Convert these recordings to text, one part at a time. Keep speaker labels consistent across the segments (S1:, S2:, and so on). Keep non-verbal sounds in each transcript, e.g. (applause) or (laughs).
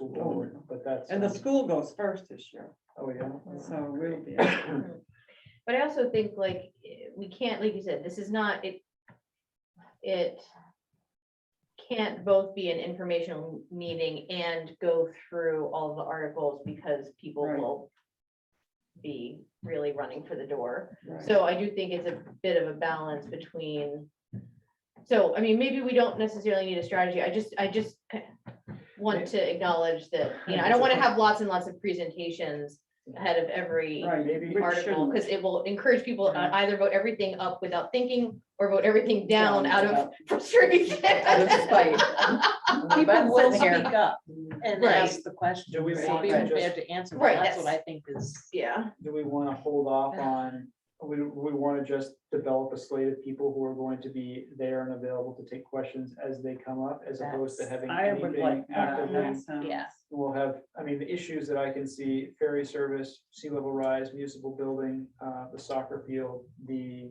S1: Oh, But that's.
S2: And the school goes first this year,
S1: Oh, yeah.
S2: so we'll be.
S1: (coughs)
S3: Mhm. (clears throat) But I also think like, eh, we can't, like you said, this is not, it, it can't both be an informational meeting and go through all the articles because people
S2: Right.
S3: will be really running for the door.
S2: right.
S3: So I do think it's a bit of a balance between, so, I mean, maybe we don't necessarily need a strategy. I just, I just want to acknowledge that, you know, I don't want to have lots and lots of presentations ahead of every
S2: Right,
S1: Maybe-
S2: we
S3: article,
S2: shouldn't.
S3: because it will encourage people to
S2: Yeah.
S3: either vote everything up without thinking or vote everything down
S2: Down
S3: out of
S2: without-
S3: frustration.
S4: Out of
S5: (laughs)
S4: spite.
S5: People
S4: People
S5: will
S4: will
S5: speak
S4: speak
S5: up and
S3: Right.
S5: ask the question.
S1: Do we
S5: right?
S1: want
S5: Be
S1: to
S5: prepared
S1: just-
S5: to answer,
S3: Right,
S5: them. that's what I
S3: that's-
S5: think is.
S3: (laughs) Yeah,
S1: Do we want to hold off on, we, we want to just develop a slate of people who are going to be there and available to take questions as they come up, as opposed to
S5: That's-
S1: having
S2: I would
S1: anything
S2: like uh, that.
S1: actively
S2: that sounds-
S5: Yeah.
S1: We'll have, I mean, the issues that I can see, ferry service, sea level rise, municipal building, uh, the soccer field, the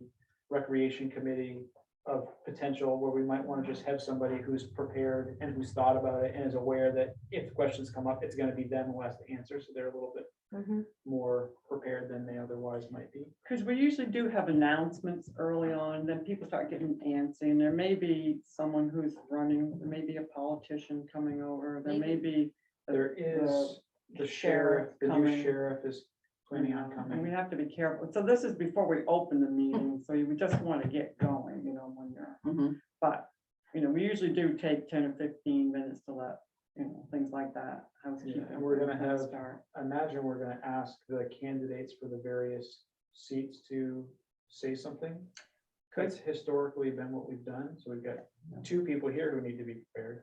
S1: recreation committee of potential where we might want to just have somebody who's prepared and who's thought about it and is aware that if questions come up, it's going to be them who has to answer. So they're a little bit more prepared than they otherwise might be.
S2: Because we usually do have announcements early on, then people start getting antsy, and there may be someone who's running, there may be a politician coming over, there may be. the-
S1: There is the sheriff, the new
S2: coming. Mm-hmm.
S1: sheriff is planning on
S2: And we
S1: coming.
S2: have to be careful, so this is before we open the meeting, so you just want to get going, you know, when you're,
S1: Mm-hmm.
S2: but, you know, we usually do take ten or fifteen minutes to let, you know, things like that. housekeeping
S1: and we're gonna have-
S2: Start. (laughs)
S1: I Imagine we're gonna ask the candidates for the various seats to say something. That's historically been what we've done, so we've got two people here who need to be prepared.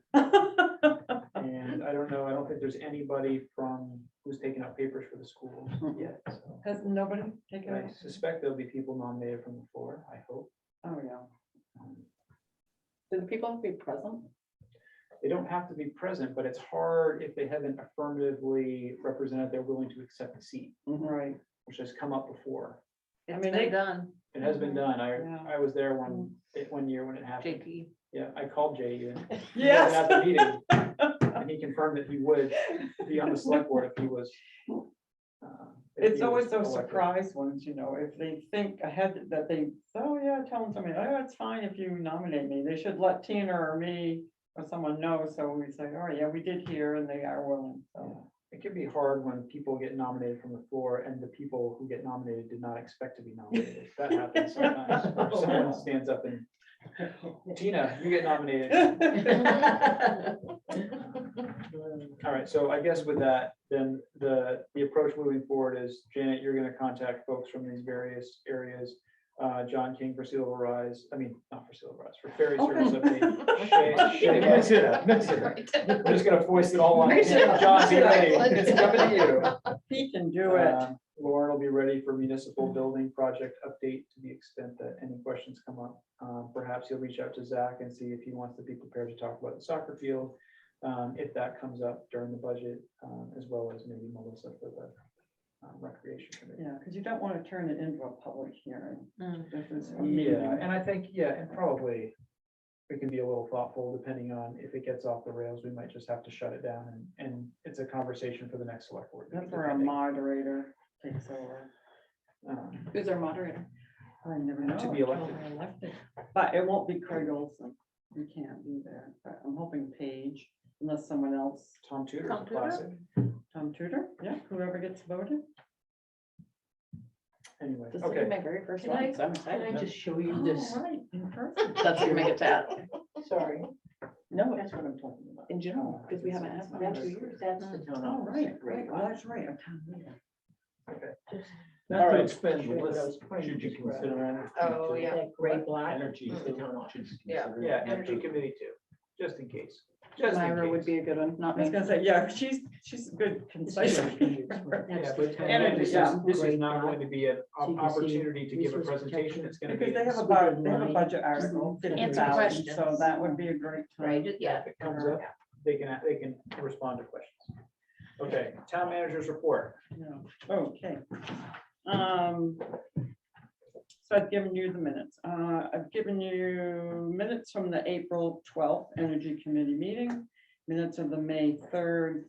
S1: And I don't know, I don't think there's anybody from, who's taken out papers for the schools yet. so.
S2: Has nobody taken
S1: I
S2: it?
S1: suspect there'll be people nominated from the floor, I hope.
S2: Oh, yeah.
S4: Do the people have to be present?
S1: they don't have to be present, but it's hard if they haven't affirmatively represented they're willing to accept the seat,
S2: Right.
S1: which has come up before.
S5: It's
S2: mean, they-
S5: been done,
S1: It has been done.
S2: Yeah.
S1: I, I was there one, it- one year when it happened.
S4: (laughs)
S5: Jakey.
S1: Yeah, I called Jay
S2: (laughs)
S1: even. He wasn't
S2: Yes.
S1: at the meeting,
S2: (laughs)
S1: And he confirmed that he would be on the select board if he was. uh, if
S2: It's
S1: he
S2: always
S1: was
S2: those
S1: elected.
S2: surprise ones, you know, if they think ahead that they, oh yeah, tell them something, oh, it's fine if you nominate me, they should let Tina or me or someone know, so we say, oh yeah, we did hear and they are willing, so.
S1: It can be hard when people get nominated from the floor and the people who get nominated did not expect to be nominated. That happens sometimes.
S2: (laughs)
S1: where Someone stands up and, Tina, you get nominated.
S5: Mm.
S1: (laughs) All right, so I guess with that, then the, the approach moving forward is Janet, you're gonna contact folks from these various areas. Uh, John King for Sea Level Rise, I mean, not for Sea Level Rise, for Ferry Service
S3: (laughs)
S1: Update. Shay- Shay- mix it up, mix it up. I'm just gonna voice it all on.
S3: Mix it up.
S1: John, be ready. It's coming to you.
S2: (laughs) He can do it.
S1: Um, Lauren will be ready for municipal building project update to the extent that any questions come up. Um, Perhaps he'll reach out to Zach and see if he wants to be prepared to talk about the soccer field, um, if that comes up during the budget, um, as well as maybe Melissa for the um, recreation committee.
S2: Yeah, because you don't want to turn it into a public hearing.
S5: Mm.
S2: This is a
S1: Yeah,
S2: meeting.
S1: and I think, yeah, and probably we can be a little thoughtful depending on if it gets off the rails, we might just have to shut it down and, and it's a conversation for the next select board. meeting,
S2: That's where a
S1: depending.
S2: moderator takes over.
S1: Um,
S4: Who's our moderator?
S2: I never know.
S1: To be elected.
S2: But it won't be Craig Olson. We can't be there. But I'm hoping Paige, unless someone else,
S1: Tom Tudor,
S5: Tom Tudor?
S1: classic.
S2: Tom Tudor, yeah, whoever gets voted.
S1: Anyway,
S4: This will be
S1: okay.
S4: my very first
S5: Can I-
S4: one, so I'm
S5: Can I
S4: excited.
S5: just show
S2: Oh,
S5: you this?
S4: That's what you make it bad. (laughs) Sorry,
S2: No, that's what I'm talking about.
S4: in general, because we haven't had one in two years. That's the
S2: All
S4: town. hall.
S2: Oh, right, right, well, that's right. I'm telling you.
S6: Not
S4: All
S6: to
S4: right.
S6: expend the
S4: Sure,
S6: list,
S4: that's
S6: should you consider energy?
S5: Oh,
S6: too?
S5: yeah.
S4: Like
S6: Right,
S4: Greg Black,
S6: Energy is the town option.
S5: Yeah.
S1: Uh, Yeah, energy
S4: (laughs)
S1: committee too, just in case. Just in
S5: Mm.
S4: Myra would
S1: case.
S4: be a good one, not
S2: I was
S4: me.
S2: gonna say, yeah, she's, she's a good concise.
S1: Yeah,
S4: That's the
S1: but
S4: town
S1: and
S2: energy,
S1: this is,
S4: hall.
S1: this is
S4: Greg
S1: not
S4: Black.
S1: going to be an op-
S4: you can see
S1: opportunity to give a
S4: resource
S1: presentation,
S4: protection.
S1: it's gonna be.
S2: Because they have a
S4: Speaker
S2: budget, they have a
S4: line.
S2: budget article,
S4: Answer
S2: fifty thousand, so
S5: questions.
S2: that would be a great
S3: Right,
S2: time.
S3: just- yeah.
S1: If it comes up, they can, they can respond to questions. Okay, town manager's report.
S2: Yeah, okay. Um, so I've given you the minutes. Uh, I've given you minutes from the April twelfth Energy Committee meeting, minutes of the May third